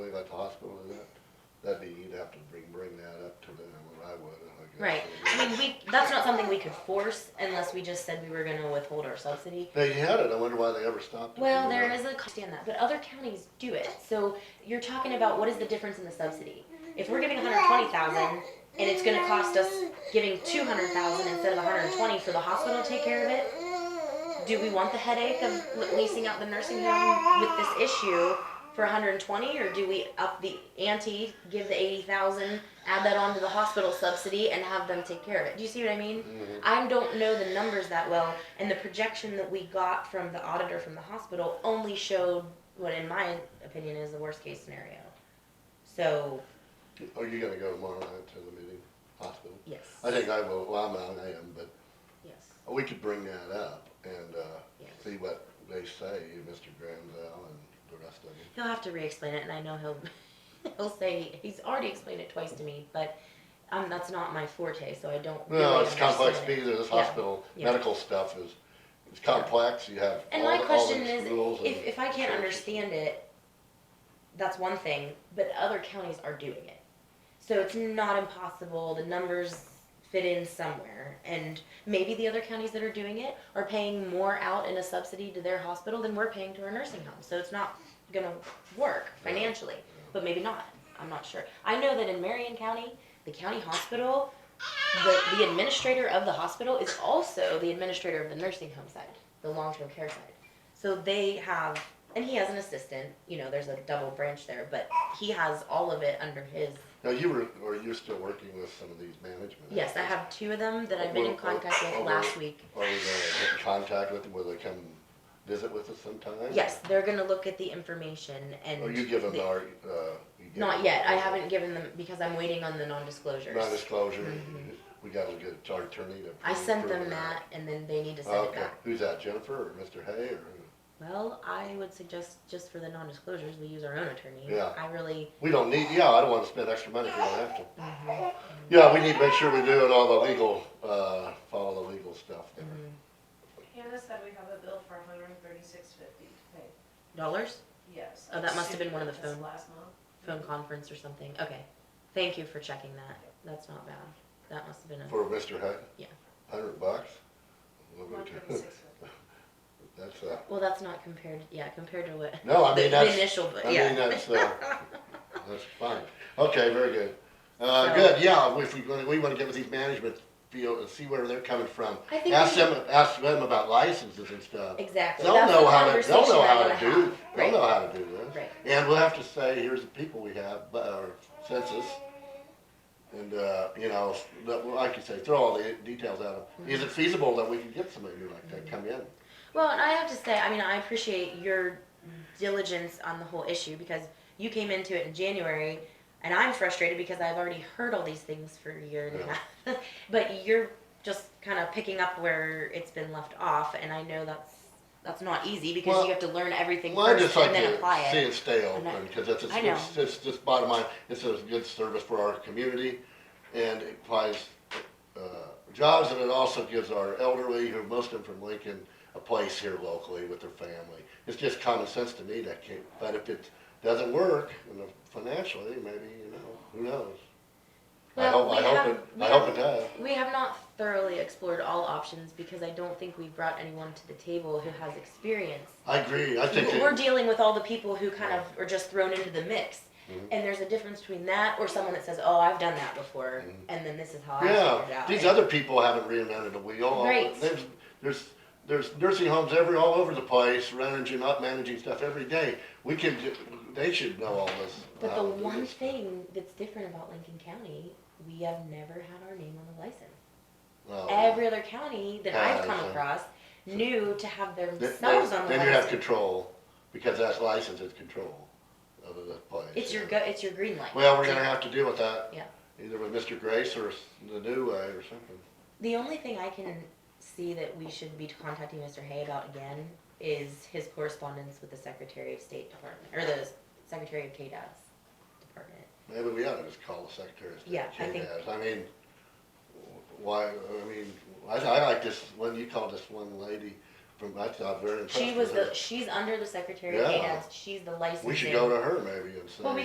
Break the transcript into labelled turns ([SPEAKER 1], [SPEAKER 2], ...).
[SPEAKER 1] that's not something we could force unless we just said we were gonna withhold our subsidy.
[SPEAKER 2] They had it, I wonder why they ever stopped it.
[SPEAKER 1] Well,
[SPEAKER 2] you
[SPEAKER 1] there
[SPEAKER 2] know?
[SPEAKER 1] is a cost in that, but other counties do it. So you're talking about what is the difference in the subsidy? If we're giving 120,000 and it's going to cost us giving 200,000 instead of 120 for the hospital to take care of it, do we want the headache of l- leasing out the nursing home with this issue for 120 or do we up the ante, give the 80,000, add that on to the hospital subsidy and have them take care of it? Do you see what I mean?
[SPEAKER 2] Mhm.
[SPEAKER 1] I don't know the numbers that well, and the projection that we got from the auditor from the hospital only showed what, in my opinion, is the worst case scenario. So,
[SPEAKER 2] Are you gonna go tomorrow night to the meeting, hospital?
[SPEAKER 1] yes.
[SPEAKER 2] I think I will, well, I'm out, I am, but
[SPEAKER 1] Yes.
[SPEAKER 2] we could bring that up and, uh,
[SPEAKER 1] Yeah.
[SPEAKER 2] see what they say, Mr. Granville and the rest of them.
[SPEAKER 1] He'll have to re-explain it, and I know he'll he'll say he's already explained it twice to me, but um, that's not my forte, so I don't.
[SPEAKER 2] No,
[SPEAKER 1] really
[SPEAKER 2] it's complex
[SPEAKER 1] understand it.
[SPEAKER 2] because this
[SPEAKER 1] Yeah,
[SPEAKER 2] hospital,
[SPEAKER 1] yeah.
[SPEAKER 2] medical stuff is, it's complex, you have
[SPEAKER 1] And
[SPEAKER 2] all,
[SPEAKER 1] my
[SPEAKER 2] the- all
[SPEAKER 1] question
[SPEAKER 2] these
[SPEAKER 1] is,
[SPEAKER 2] rules and
[SPEAKER 1] if if I can't
[SPEAKER 2] restrictions.
[SPEAKER 1] understand it, that's one thing, but other counties are doing it, so it's not impossible. The numbers fit in somewhere, and maybe the other counties that are doing it are paying more out in a subsidy to their hospital than we're paying to our nursing home. So it's not gonna work
[SPEAKER 2] Yeah.
[SPEAKER 1] financially, but maybe not. I'm not sure. I know that in Marion County, the county hospital, the, the administrator of the hospital is also the administrator of the nursing home side, the long-term care side. So they have, and he has an assistant, you know, there's a double branch there, but he has all of it under his,
[SPEAKER 2] Now, you were, or you're still working with some of these management?
[SPEAKER 1] yes, I
[SPEAKER 2] outfits.
[SPEAKER 1] have two of them that I've been in contact with last week.
[SPEAKER 2] Are we gonna get in contact with them, will they come visit with us sometime?
[SPEAKER 1] Yes, they're gonna look at the information and.
[SPEAKER 2] Or you give them
[SPEAKER 1] the-
[SPEAKER 2] our, uh? you give
[SPEAKER 1] Not
[SPEAKER 2] them
[SPEAKER 1] yet, I
[SPEAKER 2] our-
[SPEAKER 1] haven't given them, because I'm waiting on the non-disclosures.
[SPEAKER 2] Non-disclosure,
[SPEAKER 1] Mhm.
[SPEAKER 2] we gotta get our attorney to.
[SPEAKER 1] I sent them
[SPEAKER 2] approve
[SPEAKER 1] that, and then they need to send it
[SPEAKER 2] Oh, Okay,
[SPEAKER 1] back.
[SPEAKER 2] who's that, Jennifer or Mr. Hay or, who?
[SPEAKER 1] Well, I would suggest just for the non-disclosures, we use our own attorney.
[SPEAKER 2] Yeah.
[SPEAKER 1] I really,
[SPEAKER 2] we don't need, yeah, I don't wanna spend extra money if we don't have to.
[SPEAKER 1] Mm-hmm.
[SPEAKER 2] Yeah, we need to make sure we're doing all the legal, uh, follow the legal stuff there.
[SPEAKER 1] Mm-hmm.
[SPEAKER 3] Hannah said we have a bill for hundred and thirty-six fifty to pay,
[SPEAKER 1] dollars,
[SPEAKER 3] yes.
[SPEAKER 1] Oh, that must have been one of the
[SPEAKER 3] That's
[SPEAKER 1] phone-
[SPEAKER 3] Last month.
[SPEAKER 1] phone conference or something. Okay, thank you for checking that. That's not bad. That must have been a,
[SPEAKER 2] For Mr. Hay?
[SPEAKER 1] Yeah.
[SPEAKER 2] Hundred bucks? Well, we
[SPEAKER 3] One
[SPEAKER 2] can-
[SPEAKER 3] thirty-six fifty.
[SPEAKER 2] That's, uh,
[SPEAKER 1] well, that's not compared, yeah, compared to what.
[SPEAKER 2] no, I
[SPEAKER 1] the-
[SPEAKER 2] mean,
[SPEAKER 1] The
[SPEAKER 2] that's,
[SPEAKER 1] initial, but
[SPEAKER 2] I mean,
[SPEAKER 1] yeah.
[SPEAKER 2] that's, uh, that's fine. Okay, very good. Uh,
[SPEAKER 1] So-
[SPEAKER 2] good, yeah, if we, wanna- we wanna get with these management field and see where they're coming from.
[SPEAKER 1] I think
[SPEAKER 2] Ask
[SPEAKER 1] we-
[SPEAKER 2] them, ask them about licenses and stuff.
[SPEAKER 1] Exactly.
[SPEAKER 2] They'll
[SPEAKER 1] That's the
[SPEAKER 2] know how to, they'll
[SPEAKER 1] conversation
[SPEAKER 2] know
[SPEAKER 1] I
[SPEAKER 2] how
[SPEAKER 1] wanna
[SPEAKER 2] to do,
[SPEAKER 1] have.
[SPEAKER 2] they'll
[SPEAKER 1] Right.
[SPEAKER 2] know how to do this.
[SPEAKER 1] Right.
[SPEAKER 2] And we'll have to say, here's the people we have, bu- or census. And, uh, you know, s- that- well, like you say, throw all the details out.
[SPEAKER 1] Mm-hmm.
[SPEAKER 2] Is it feasible that we can get somebody like that come in?
[SPEAKER 1] Well, and I have to say, I mean, I appreciate your diligence on the whole issue because you came into it in January, and I'm frustrated because I've already heard all these things for a year and a
[SPEAKER 2] Yeah.
[SPEAKER 1] half. but you're just kind of picking up where it's been left off, and I know that's that's not easy because
[SPEAKER 2] Well,
[SPEAKER 1] you have to learn everything
[SPEAKER 2] Well, I
[SPEAKER 1] first
[SPEAKER 2] just like
[SPEAKER 1] and then
[SPEAKER 2] to
[SPEAKER 1] apply it.
[SPEAKER 2] see it stay
[SPEAKER 1] I'm not-
[SPEAKER 2] open, cause it's,
[SPEAKER 1] I know.
[SPEAKER 2] it's, it's just bottom line, it's a good service for our community. And it provides, uh, jobs and it also gives our elderly, who most of them from Lincoln, a place here locally with their family. It's just common sense to me that can, but if it doesn't work you know, financially, maybe, you know, who knows? I
[SPEAKER 1] Well,
[SPEAKER 2] hope, I
[SPEAKER 1] we
[SPEAKER 2] hope
[SPEAKER 1] have-
[SPEAKER 2] it,
[SPEAKER 1] we
[SPEAKER 2] I hope it
[SPEAKER 1] have-
[SPEAKER 2] does.
[SPEAKER 1] We have not thoroughly explored all options because I don't think we've brought anyone to the table who has experience
[SPEAKER 2] I agree, I think,
[SPEAKER 1] we're
[SPEAKER 2] it-
[SPEAKER 1] dealing with all the people who kind of are just thrown into the mix.
[SPEAKER 2] Mhm.
[SPEAKER 1] And there's a difference between that or someone that says, "Oh, I've done that before,"
[SPEAKER 2] Mhm.
[SPEAKER 1] and then this is how I figured it
[SPEAKER 2] yeah,
[SPEAKER 1] out.
[SPEAKER 2] these
[SPEAKER 1] And-
[SPEAKER 2] other people haven't reinvented the wheel.
[SPEAKER 1] Right.
[SPEAKER 2] There's, there's, there's nursing homes every, all over the place, managing, up managing stuff every day. We can, ju- they should know all this.
[SPEAKER 1] but
[SPEAKER 2] how
[SPEAKER 1] the
[SPEAKER 2] to do
[SPEAKER 1] one
[SPEAKER 2] this.
[SPEAKER 1] thing that's different about Lincoln County, we have never had our name on the license.
[SPEAKER 2] Well,
[SPEAKER 1] Every other county that I've
[SPEAKER 2] Has,
[SPEAKER 1] come
[SPEAKER 2] huh?
[SPEAKER 1] across knew to have
[SPEAKER 2] Then,
[SPEAKER 1] themselves
[SPEAKER 2] then-
[SPEAKER 1] on the
[SPEAKER 2] then you have
[SPEAKER 1] license.
[SPEAKER 2] control, because that's license is control of the place.
[SPEAKER 1] It's your
[SPEAKER 2] yeah.
[SPEAKER 1] go, it's your green light.
[SPEAKER 2] Well, we're gonna have to deal with that.
[SPEAKER 1] Yeah.
[SPEAKER 2] Either with Mr. Grace or s- the new way or something.
[SPEAKER 1] The only thing I can see that we should be contacting Mr. Hay about again is his correspondence with the Secretary of State Department, or the Secretary of KDAS Department.
[SPEAKER 2] Maybe we ought to just call the Secretary of State.
[SPEAKER 1] Yeah, I think-
[SPEAKER 2] KDAS. I mean, why, I mean, I, I like this, when you called this one lady from, I thought very impressed
[SPEAKER 1] She was
[SPEAKER 2] with her.
[SPEAKER 1] the, she's under the Secretary of
[SPEAKER 2] Yeah.
[SPEAKER 1] KDAS, she's the licensing.
[SPEAKER 2] We should go to her maybe and say.
[SPEAKER 1] Well, we